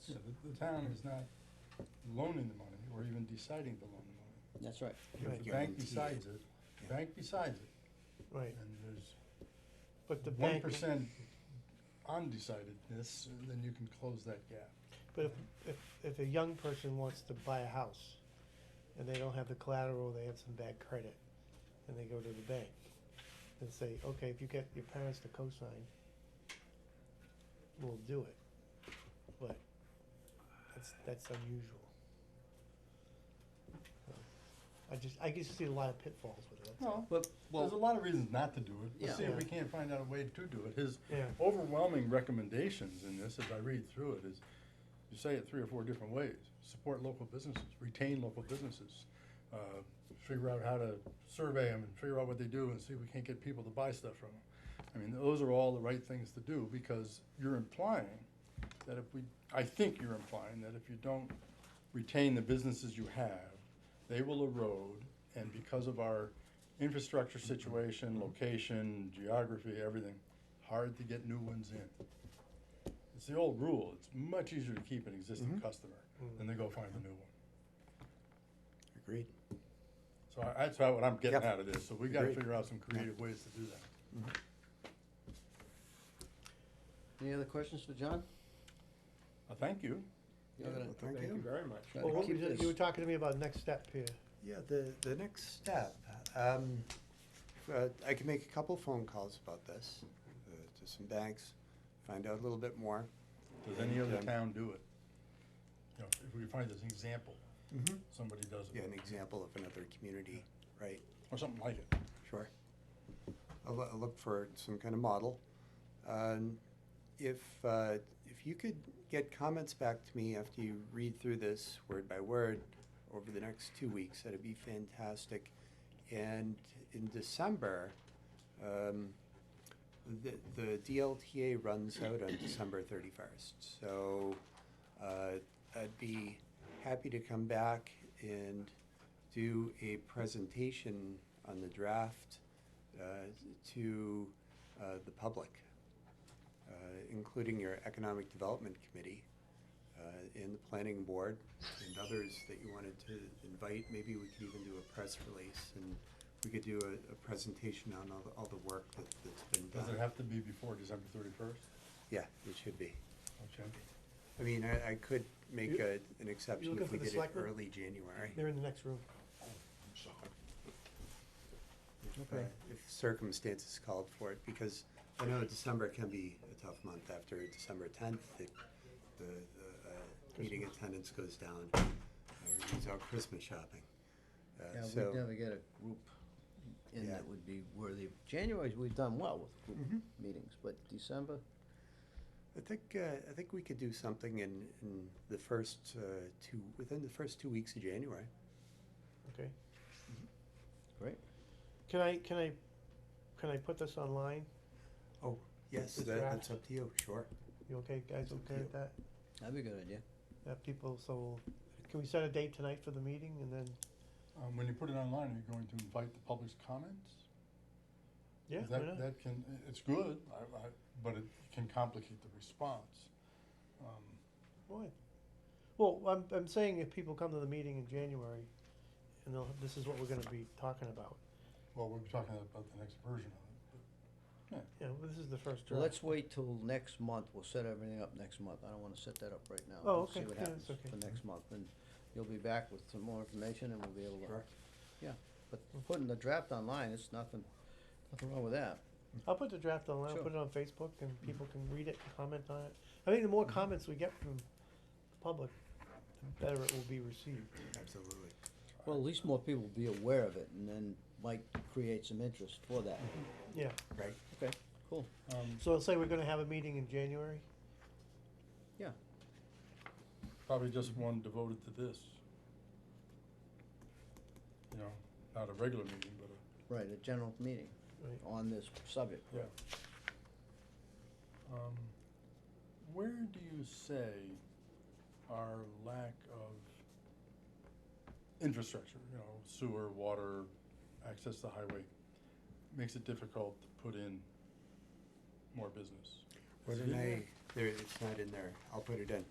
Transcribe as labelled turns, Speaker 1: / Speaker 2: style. Speaker 1: So the, the town is not loaning the money or even deciding to loan the money.
Speaker 2: That's right.
Speaker 1: If the bank decides it, the bank decides it,
Speaker 3: Right,
Speaker 1: and there's
Speaker 3: but the
Speaker 1: one
Speaker 3: bank,
Speaker 1: percent undecidedness, then you can close that gap.
Speaker 3: but if, if, if a young person wants to buy a house and they don't have the collateral, they have some bad credit, and they go to the bank and say, okay, if you get your parents to co-sign, we'll do it, but that's, that's unusual. So, I just, I just see a lot of pitfalls with it, that's all.
Speaker 1: Well,
Speaker 2: But,
Speaker 1: there's a
Speaker 2: well,
Speaker 1: lot of reasons not to do it. Let's see
Speaker 2: Yeah.
Speaker 1: if we can't find out a way to do it. His
Speaker 3: Yeah,
Speaker 1: overwhelming recommendations in this, as I read through it, is you say it three or four different ways. Support local businesses, retain local businesses, uh, figure out how to survey them and figure out what they do and see if we can't get people to buy stuff from them. I mean, those are all the right things to do because you're implying that if we, I think you're implying that if you don't retain the businesses you have, they will erode and because of our infrastructure situation, location, geography, everything, hard to get new ones in. It's the old rule, it's much easier to keep an existing
Speaker 4: Mhm.
Speaker 1: customer
Speaker 3: Mm.
Speaker 1: than to go find a new one.
Speaker 4: Agreed.
Speaker 1: So I- that's about what I'm getting
Speaker 4: Yep.
Speaker 1: out of this, so we gotta
Speaker 4: Agreed.
Speaker 1: figure out some creative ways to do that.
Speaker 2: any other questions for John?
Speaker 1: Well, Uh, thank you.
Speaker 2: You're gonna
Speaker 4: well, thank you.
Speaker 5: very much.
Speaker 2: try to
Speaker 3: well, what
Speaker 2: keep
Speaker 3: was it-
Speaker 2: this-
Speaker 3: you were talking to me about next step here,
Speaker 4: Yeah, the, the next step, um, uh, I can make a couple phone calls about this, uh, to some banks, find out a little bit more.
Speaker 1: Does any other
Speaker 4: Um,
Speaker 1: town do it? You know, if we find this example,
Speaker 4: Mm-hmm.
Speaker 1: somebody does
Speaker 4: Yeah,
Speaker 1: it,
Speaker 4: an example of another community, right?
Speaker 1: or something like it.
Speaker 4: Sure. I'll, loo- I'll look for some kind of model. Um, if, uh, if you could get comments back to me after you read through this word by word over the next two weeks, that'd be fantastic. And in December, um, the, the DLTA runs out on December thirty-first, so, uh, I'd be happy to come back and do a presentation on the draft uh, to uh, the public, uh, including your Economic Development Committee uh, and the Planning Board and others that you wanted to invite. Maybe we could even do a press release and we could do a, a presentation on all the, all the work that, that's been done.
Speaker 1: Does it have to be before December thirty-first?
Speaker 4: Yeah, it should be.
Speaker 1: Okay.
Speaker 4: I mean, I, I could make
Speaker 3: You-
Speaker 4: a, an exception
Speaker 3: looking
Speaker 4: if we
Speaker 3: for the
Speaker 4: did it
Speaker 3: selectmen?
Speaker 4: early January.
Speaker 3: they're in the next room.
Speaker 4: uh,
Speaker 3: Okay.
Speaker 4: if circumstances called for it, because I know December can be a tough month after December tenth, the, the, the, uh, meeting attendance goes down. uh, Everybody's out Christmas shopping. Uh,
Speaker 2: Yeah,
Speaker 4: so-
Speaker 2: we'd never get a group in
Speaker 4: Yeah.
Speaker 2: that would be worthy. of- January, we've done well with group
Speaker 3: Mm-hmm.
Speaker 4: Mhm.
Speaker 2: meetings, but December,
Speaker 4: I think, uh, I think we could do something in, in the first, uh, two, within the first two weeks of January.
Speaker 3: Okay.
Speaker 2: Great.
Speaker 3: Can I, can I, can I put this online?
Speaker 4: Yes,
Speaker 3: The
Speaker 4: that,
Speaker 3: draft.
Speaker 4: that's up to you, sure.
Speaker 3: You okay, guys,
Speaker 4: It's up to
Speaker 3: okay
Speaker 4: you.
Speaker 3: with that?
Speaker 2: that'd be a good idea.
Speaker 3: That people, so, can we set a date tonight for the meeting and then,
Speaker 1: Um, when you put it online, are you going to invite the public's comments?
Speaker 3: yeah, why
Speaker 1: That,
Speaker 3: not?
Speaker 1: that can, i- it's good, I, I, but it can complicate the response. Um,
Speaker 3: Why? Well, I'm, I'm saying if people come to the meeting in January and they'll, this is what we're gonna be talking about.
Speaker 1: well, we'll be talking about the next version of it,
Speaker 3: Yeah, well, this is the first
Speaker 2: Well,
Speaker 3: draft.
Speaker 2: let's wait till next month. We'll set everything up next month. I don't wanna set that up right now.
Speaker 3: Oh,
Speaker 2: Let's
Speaker 3: okay.
Speaker 2: See what
Speaker 3: Yeah, that's
Speaker 2: happens
Speaker 3: okay.
Speaker 2: for next month, and you'll be back with some more information and we'll be able to,
Speaker 4: Sure.
Speaker 2: yeah. But putting the draft online, it's nothing, nothing wrong with that.
Speaker 3: I'll put the draft online, I'll
Speaker 2: Sure.
Speaker 3: put it on Facebook and people can read it and comment on it. I think the more
Speaker 2: Mm-hmm.
Speaker 3: comments we get from the public, the better it will be received.
Speaker 4: Absolutely.
Speaker 2: Well, at least more people will be aware of it, and then might create some interest for that.
Speaker 3: Yeah,
Speaker 4: Right,
Speaker 2: Mm-hmm. Okay, cool.
Speaker 1: but, um,
Speaker 3: so let's say we're gonna have a meeting in January.
Speaker 1: probably just one devoted to this. You know, not a regular meeting, but a
Speaker 2: Right, a general meeting
Speaker 3: Right.
Speaker 2: on this subject.
Speaker 1: Yeah. Um, where do you say our lack of infrastructure, you know, sewer, water, access to highway, makes it difficult to put in more business?
Speaker 4: what
Speaker 1: Is it
Speaker 4: did
Speaker 1: in
Speaker 4: I, there, it's not in there, I'll put it in.